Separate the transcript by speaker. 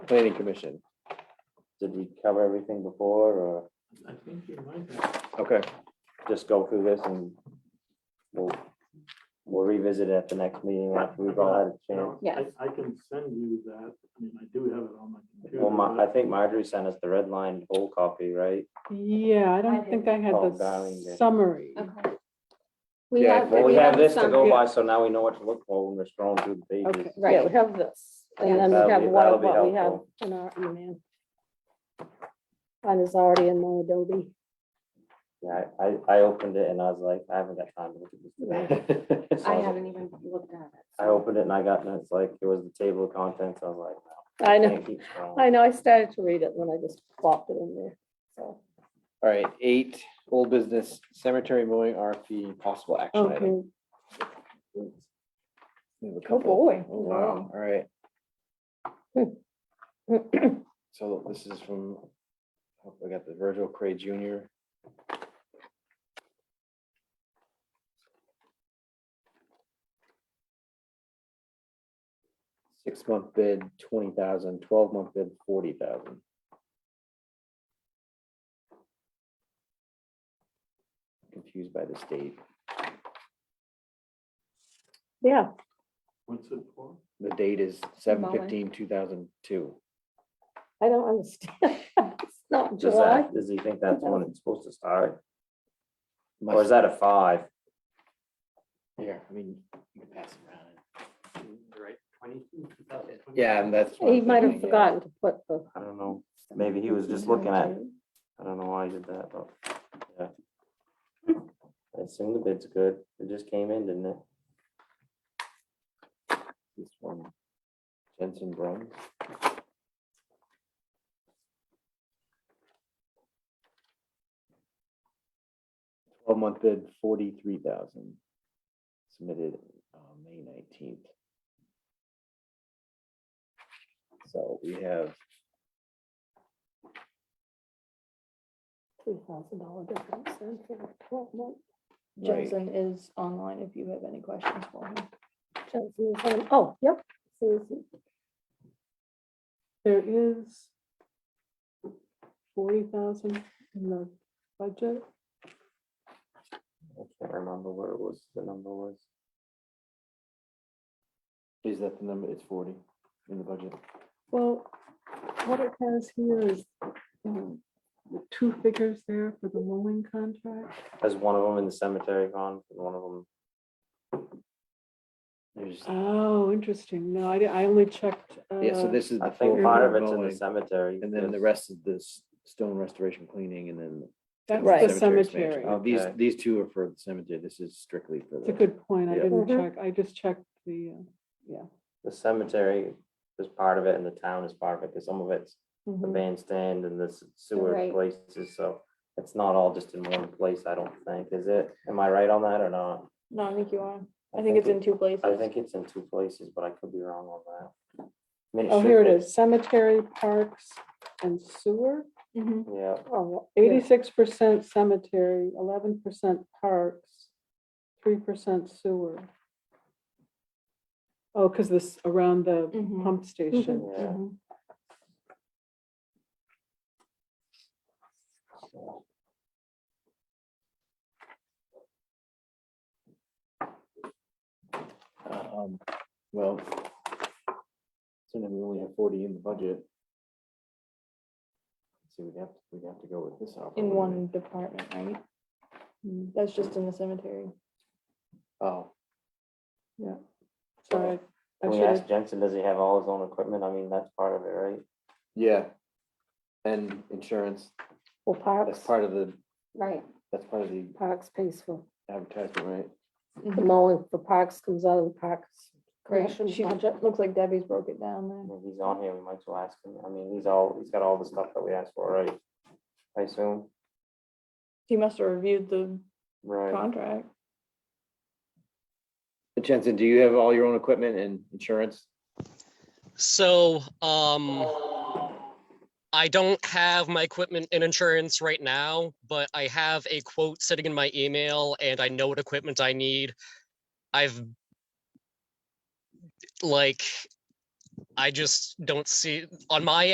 Speaker 1: planning commission. Did we cover everything before or
Speaker 2: I think you might have.
Speaker 1: okay, just go through this and we'll, we'll revisit it at the next meeting after we've all had a chance.
Speaker 2: No, I-
Speaker 3: Yes.
Speaker 2: I can send you that. I mean, I do have it on my computer.
Speaker 1: Well, Ma- I
Speaker 2: but
Speaker 1: think Marjorie sent us the red line whole copy, right?
Speaker 4: Yeah, I don't
Speaker 3: did.
Speaker 4: think I had
Speaker 1: Oh, darling, yeah.
Speaker 4: the summary.
Speaker 3: Okay. We
Speaker 1: Yeah,
Speaker 3: have.
Speaker 1: well, we have
Speaker 3: the
Speaker 1: this to
Speaker 3: sum-
Speaker 1: go by, so now we know what to look for when we're scrolling through the
Speaker 4: Okay,
Speaker 1: pages.
Speaker 4: yeah, we have this, and then
Speaker 1: That'll
Speaker 4: we have
Speaker 1: be-
Speaker 4: what,
Speaker 1: that'll be
Speaker 4: what we have
Speaker 1: helpful.
Speaker 4: in our email. Mine is already in my Adobe.
Speaker 1: Yeah, I, I opened it and I was like, I haven't got time to look at this today. So
Speaker 3: I
Speaker 1: was like,
Speaker 3: haven't even looked at it.
Speaker 1: I opened it and I got, and it's like, it was the table of contents, I was
Speaker 4: I
Speaker 1: like.
Speaker 4: know, I know, I started to read it when I just plopped it in there, so.
Speaker 5: All right, eight, old business cemetery mowing RFP, possible action item.
Speaker 4: Okay,
Speaker 5: We have a
Speaker 4: Oh, oh
Speaker 5: couple.
Speaker 4: boy.
Speaker 5: Oh, wow, all right. So this is from, hope I got the Virgil Cray Junior. Six month bid, twenty thousand. Twelve month bid, forty thousand. Confused by the state,
Speaker 4: Yeah,
Speaker 2: What's it for?
Speaker 5: the date is seven fifteen, two thousand two.
Speaker 4: I don't understand. It's not
Speaker 1: Does
Speaker 4: July.
Speaker 1: that, does he think that's when it's supposed to start, or is that a five?
Speaker 5: Yeah, I mean, you can pass it around.
Speaker 2: Right, twenty, two thousand twenty?
Speaker 5: Yeah, and that's. what
Speaker 4: He
Speaker 5: I'm
Speaker 4: might have
Speaker 5: thinking, yeah.
Speaker 4: forgotten to put the.
Speaker 1: I don't know, maybe he was just looking at, it. I don't know why he did that, but, yeah. I assume the bid's good, it just came in, didn't it?
Speaker 5: This one, Jensen Brun. Twelve month bid, forty-three thousand. Submitted, uh, May nineteenth. So we have
Speaker 4: Three thousand dollar difference in for the twelve month.
Speaker 5: Right.
Speaker 6: Jensen is online if you have any questions for him.
Speaker 4: Johnson is on- Oh, yep. Says
Speaker 7: There is forty thousand in the budget.
Speaker 1: I can't remember what it was, the number was.
Speaker 5: Is that the number? It's forty in the budget.
Speaker 7: Well, what it has here is um, the two figures there for the mowing contract.
Speaker 1: There's one of them in the cemetery gone, and one of them.
Speaker 5: There's,
Speaker 7: Oh, interesting. No, I, di- I only checked.
Speaker 5: yeah, so
Speaker 7: uh,
Speaker 5: this is.
Speaker 1: I
Speaker 5: the
Speaker 1: think
Speaker 5: full
Speaker 1: part of
Speaker 5: amount
Speaker 1: it's in the
Speaker 5: mowing,
Speaker 1: cemetery.
Speaker 5: And then the
Speaker 1: because-
Speaker 5: rest is this stone restoration cleaning and then.
Speaker 7: That's
Speaker 4: Right.
Speaker 7: the
Speaker 5: expansion.
Speaker 7: cemetery.
Speaker 5: Uh, These,
Speaker 1: Okay.
Speaker 5: these two are for the cemetery. This is strictly for
Speaker 7: It's a
Speaker 5: the,
Speaker 7: good point. I
Speaker 5: Yeah.
Speaker 7: didn't
Speaker 4: Mhm.
Speaker 7: check. I just checked the, uh,
Speaker 1: The cemetery is part of it and the town is part of it, because some of it's the
Speaker 7: mhm.
Speaker 1: bandstand and the s- sewer
Speaker 3: Right.
Speaker 1: places, so. It's not all just in one place, I don't think, is it? Am I right on that or not?
Speaker 6: No, I think you are. I think it's
Speaker 1: it-
Speaker 6: in two places.
Speaker 1: I think it's in two places, but I could be wrong on that. I mean,
Speaker 7: Oh,
Speaker 1: should
Speaker 7: here it
Speaker 1: be.
Speaker 7: is. Cemetery, parks and sewer.
Speaker 3: Mm-hmm.
Speaker 6: Mhm.
Speaker 1: Yeah,
Speaker 7: Oh, eighty-six percent cemetery, eleven percent parks, three percent sewer. Oh, because this, around the
Speaker 6: Mhm.
Speaker 3: Mm-hmm.
Speaker 7: pump station.
Speaker 1: yeah.
Speaker 6: Mhm.
Speaker 1: so.
Speaker 5: um, well. So then we only have forty in the budget. So we'd have, we'd have to go with this.
Speaker 6: In
Speaker 5: operating
Speaker 6: one
Speaker 5: rate.
Speaker 6: department, right? That's just in the cemetery.
Speaker 5: Oh,
Speaker 7: Sorry, I
Speaker 1: Can we
Speaker 7: should have
Speaker 1: ask Jensen, does he have all his own equipment? I mean, that's part of it, right?
Speaker 5: yeah. And insurance,
Speaker 4: Well,
Speaker 5: that's
Speaker 4: Parks,
Speaker 5: part of the,
Speaker 3: Right.
Speaker 5: that's part of the
Speaker 4: Parks pays for,
Speaker 5: advertisement, right?
Speaker 6: Mm-hmm.
Speaker 4: the mowing for Parks comes out of the Parks
Speaker 6: Correct.
Speaker 4: Correction
Speaker 6: She,
Speaker 4: budget.
Speaker 6: looks like Debbie's broke it down
Speaker 1: I
Speaker 6: there.
Speaker 1: mean, He's on here, we might as well ask him. I mean, he's all, he's got all the stuff that we asked for, right? I assume,
Speaker 6: He must have reviewed the
Speaker 1: right?
Speaker 6: contract.
Speaker 5: Jensen, do you have all your own equipment and insurance?
Speaker 8: So, um, I don't have my equipment and insurance right now, but I have a quote sitting in my email and I know what equipment I need. I've like I just don't see, on my